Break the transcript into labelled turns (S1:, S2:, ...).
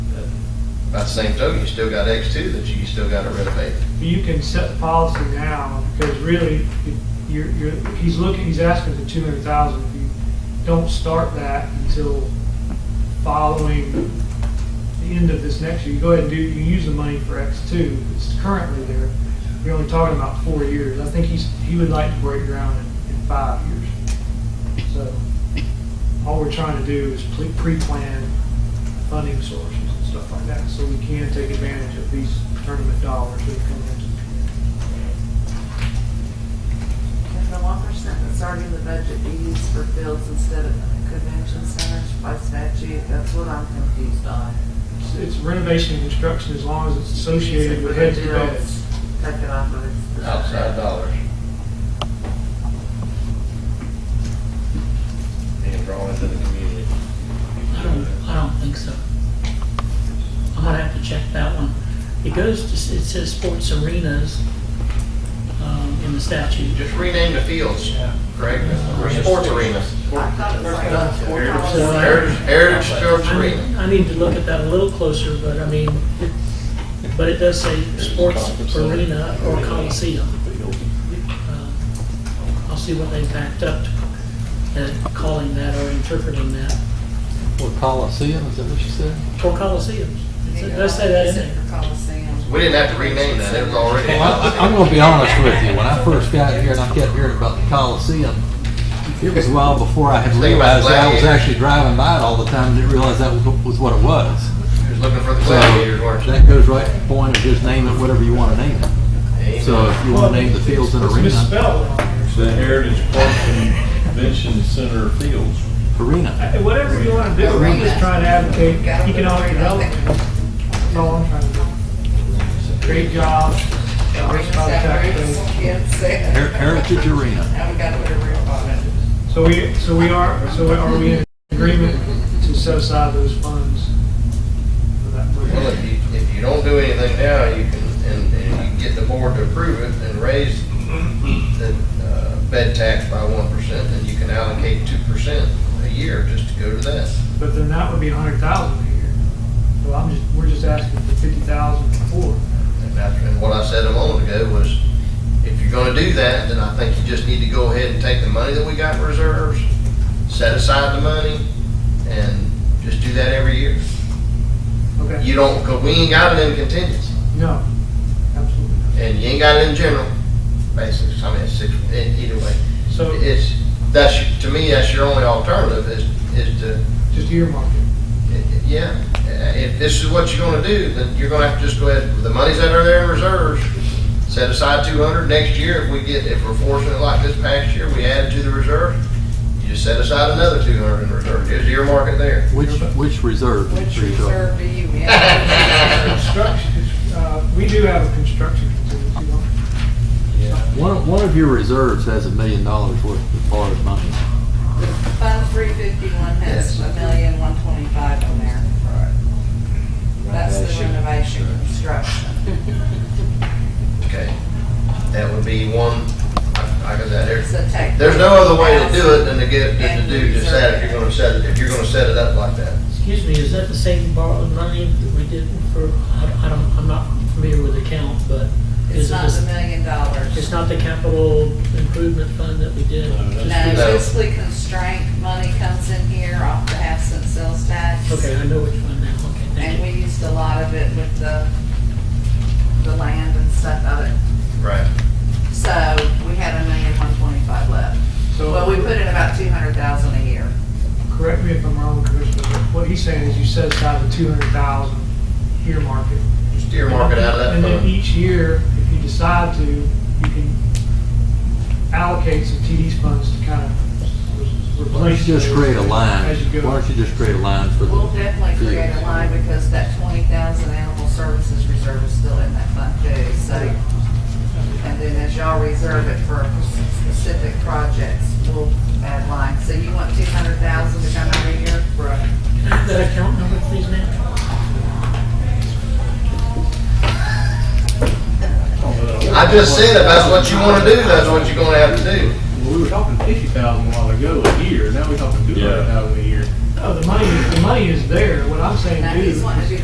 S1: By the same token, you still got X two that you still gotta renovate.
S2: You can set the policy now, because really, you're, you're, he's looking, he's asking for two hundred thousand. If you don't start that until following the end of this next year, you go ahead and do, you can use the money for X two, it's currently there. You're only talking about four years. I think he's, he would like to break ground in, in five years. So, all we're trying to do is ple- pre-plan funding sources and stuff like that, so we can take advantage of these tournament dollars that come into the community.
S3: Can the one percent that's already in the budget be used for fields instead of convention centers by statute? That's what I'm confused on.
S2: It's- It's renovation and construction as long as it's associated with heads and beds.
S3: Take it off of its.
S1: outside dollars. And drawn into the community.
S4: I don't, I don't think so. I'm gonna have to check that one. It goes to, it says sports arenas, um, in the statute.
S1: Just rename the fields, Greg, sports arenas.
S3: I thought it was like.
S4: So, uh,
S1: Heritage, Heritage Sports
S4: I
S1: Arena.
S4: need- I need to look at that a little closer, but I mean, but it does say sports arena or coliseum. Uh, I'll see what they backed up at calling that or interpreting that,
S5: Or Coliseum, is that what you said?
S4: or coliseums. It does say that in there.
S1: We didn't have to rename that, it was already.
S5: Well, I- I- I'm gonna be honest with you, when I first got here and I kept hearing about the Coliseum, it was a while before I had realized that I was actually driving by it all the time and didn't realize that was was what it was.
S1: Just looking for the
S5: So
S1: gladiators, weren't you?
S5: that goes right to the point of just name it whatever you wanna name it. So if you wanna name the fields an
S2: It's
S5: arena,
S2: misspelled on here.
S6: The Heritage Park Convention Center Fields.
S5: arena.
S2: Hey, Whatever you want to do, I'm just trying to advocate economic development. That's all I'm trying to do. Create jobs, diversify the tax base.
S5: Her- Heritage Arena.
S3: Now we gotta put a real on it.
S2: So we, so we are, so are we in agreement to set aside those funds for that?
S1: Well,
S2: purpose?
S1: if you, if you don't do anything now, you can, and, and you can get the board to approve it and raise the, uh, bed tax by one percent, then you can allocate two percent a year just to go to that.
S2: But then that would be a hundred thousand a year. So I'm just, we're just asking for fifty thousand for.
S1: And that's, and what I said a moment ago was, if you're gonna do that, then I think you just need to go ahead and take the money that we got in reserves, set aside the money, and just do that every year.
S2: Okay,
S1: You don't, cause we ain't got it in contingency,
S2: no, absolutely not.
S1: and you ain't got it in general, basically, I mean, it's six, e- either way.
S2: So
S1: It's, that's, to me, that's your only alternative, is, is to,
S2: just earmark it.
S1: yeah, uh, if this is what you're gonna do, then you're gonna have to just go ahead, the monies that are there in reserves, set aside two hundred, next year, if we get, if we're fortunate like this past year, we add to the reserve, you just set aside another two hundred in reserve, just earmark it there.
S5: Which, which reserve?
S3: Which reserve do you have?
S2: Construction, uh, we do have a construction contingency, don't we?
S5: One, of- one of your reserves has a million dollars worth of borrowed money.
S3: Fund three fifty-one has a million, one twenty-five on there. That's the renovation construction.
S1: Okay, that would be one, I, I got that there.
S3: It's a tech.
S1: There's no other way to do it than to get, than to do just that, if you're gonna set it, if you're gonna set it up like that.
S4: Excuse me, is that the same borrowed money that we did for, I I don't, I'm not familiar with the count, but
S3: It's
S4: is it,
S3: not the
S4: the-
S3: million dollars.
S4: it's not the capital improvement fund that we did?
S6: No,
S3: No,
S4: Just-
S1: No.
S3: fiscally constraint money comes in here off the half cent sales tax.
S4: Okay, I know which fund now, okay,
S3: And
S4: thank
S3: we used a lot of it with the, the land and stuff of it.
S1: Right.
S3: So we had a million, one twenty-five left.
S2: So-
S3: Well, we put in about two hundred thousand a year.
S2: correct me if I'm wrong, Commissioner, but what he's saying is you set aside the two hundred thousand earmark it.
S1: Just earmark it out of that
S2: And then
S1: fund.
S2: each year, if you decide to, you can allocate some TD's funds to kind of replace.
S5: Why don't you just
S2: those
S5: create a line?
S2: As you
S5: Why
S2: go.
S5: don't you just create a line for the?
S3: We'll definitely create a
S5: fields?
S3: line because that twenty thousand animal services reserve is still in that fund too, so. And then as y'all reserve it for specific projects, we'll add lines. So you want two hundred thousand to come out of here?
S2: Right.
S4: you. Can I have that account number, please, Nat?
S1: I just said, if that's what you wanna do, that's what you're gonna have to do.
S7: Well, we were talking fifty thousand a while ago a year, now we're talking two
S6: Yeah.
S7: hundred thousand a year.
S2: No, the money, the money is there. What I'm saying,
S3: Now
S2: do
S3: he's wanting to do